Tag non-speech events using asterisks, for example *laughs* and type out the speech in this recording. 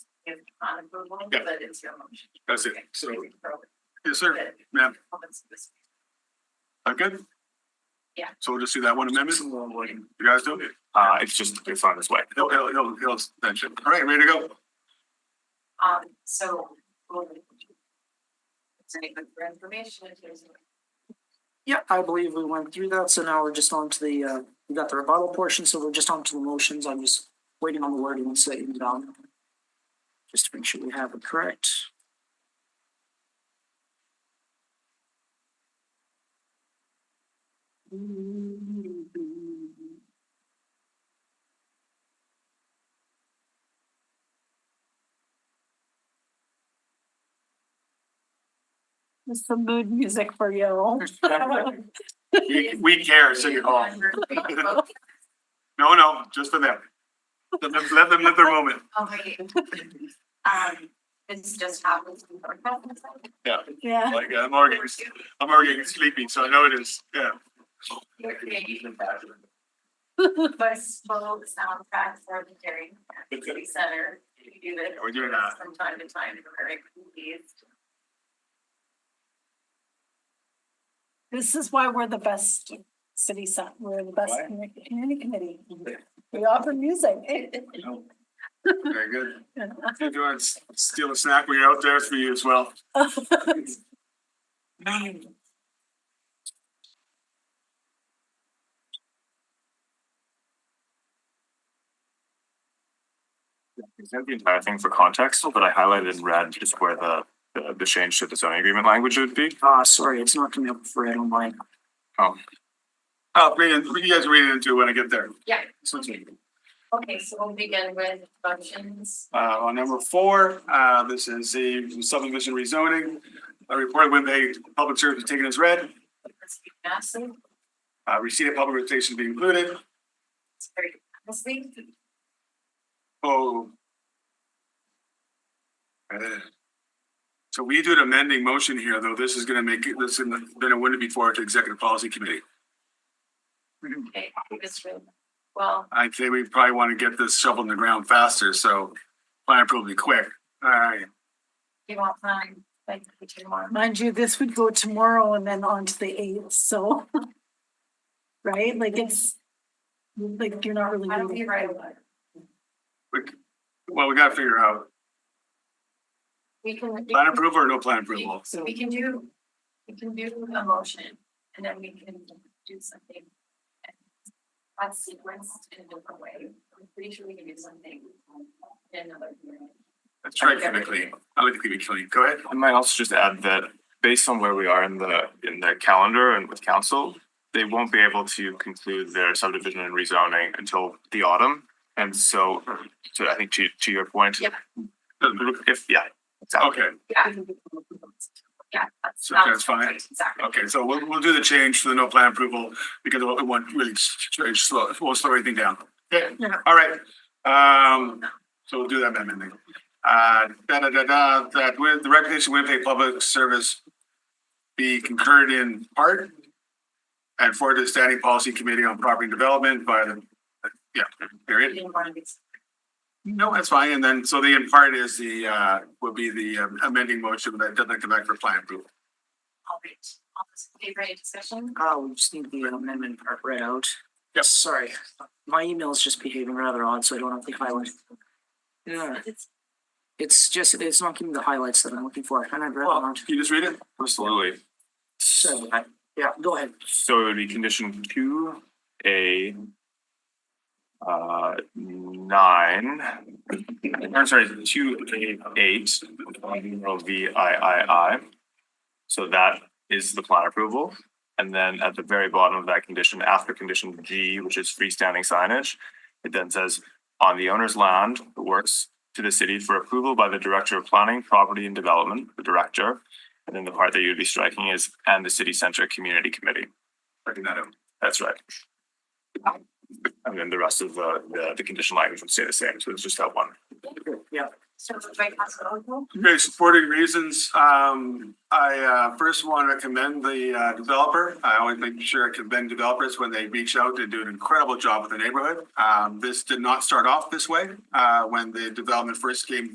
upon approval, Yeah. but it's your motion. That's it. Okay. So, Good. yes, sir. Ma'am, Comments this- I'm good? Yeah. So we'll just do that one amendment. You guys do it. Uh, it's just, it's on its way. He'll, he'll, he'll, he'll mention. All right, ready to go? Um, so. we'll- It's any good for information, if there's. Yeah, I believe we went through that, so now we're just on to the, uh, we got the rebuttal portion, so we're just on to the motions, I'm just waiting on the wording, so you down. Just to make sure we have it correct. *laughs* It's some mood music for you. Uh, We, we care, City Hall. No, no, just for them. Let them, let them live their moment. Okay. *laughs* Um, it's just happens. Yeah. Yeah. Like, uh, I'm already, I'm already getting sleepy, so I know it is, yeah. Bus full soundtrack for the Dairy City Center. We do this We're doing that. From time to time, we're very pleased. This is why we're the best city center, we're the best commu- community committee. We offer music. Very good. If you want to s- steal a snack when you're out there, it's for you as well. Present the entire thing for context, but I highlighted in red just where the, the- the change to the zoning agreement language would be. Uh, sorry, it's not coming up for it online. I'll Oh, read it, you guys read it into it when I get there. Yeah, This one's me. okay, so we'll begin with motions. Uh, on number four, uh, this is the subdivision rezoning. A report with a public service taken as read, Trustee Massey, uh, receipt of public notification be included. Trustee Massey, Oh. Uh, So we do an amending motion here, though. This is gonna make, it- this is gonna win it before to executive policy committee. okay, Ms. Rue. Well, I would say we probably want to get this shovel in the ground faster, so plan probably quick. All right, you want mine, like, which you want? Mind you, this would go tomorrow and then on to the eighth, so. *laughs* Right, like it's, like you're not really. How do we write a letter? well, we gotta figure out We can. we plan can- approval or no plan we- approval. so We can do, we can do a motion and then we can do something. That's sequenced in a different way. I'm pretty sure we can do something in another. hearing. Let's try to keep it clean. I like to keep it clean. Go ahead. I might also just add that based on where we are in the, in the calendar and with council, they won't be able to conclude their subdivision and rezoning until the autumn. And so, so I think to, to your point. Yep. If, yeah. exactly. Okay, Yeah. Yeah, that's. So that's fine. right, Exactly. okay, so we'll, we'll do the change to the no plan approval because we want really s- s- slow, we'll slow everything down. Okay, all right. Um, so we'll do that amendment then. Uh, da, da, da, da, that with the recognition Winnipeg Public Service be concurred in part and forward to the Standing Policy Committee on Property Development by the, yeah, We period. didn't want to be- No, that's fine. And then, so the in part is the, uh, would be the um, amending motion that doesn't come back for plan approval. All right, all those in favor, any discussion? Uh, we just need the amendment part read out. Yep. Sorry, my email's just behaving rather odd, so I don't have the highlights. Yeah, It's- it's just, it's not giving me the highlights that I'm looking for, and I've read Well, them. can you just read it? Absolutely. So, I- yeah, go ahead. So it would be condition two, A. Uh, nine, I'm sorry, two, A, eight, numeral V I I I. So that is the plan approval. And then at the very bottom of that condition, after condition G, which is freestanding signage, it then says, on the owner's land, the works to the city for approval by the Director of Planning, Property and Development, the Director. And then the part that you'd be striking is, and the City Center Community Committee. Checking that out. That's right. And then the rest of the, the, the condition language would stay the same, so it's just that one. Yeah, So it's by Council Ogul, Okay, supporting reasons, um, I, uh, first want to commend the, uh, developer. I always make sure I commend developers when they reach out and do an incredible job with the neighborhood. Um, this did not start off this way, uh, when the development first came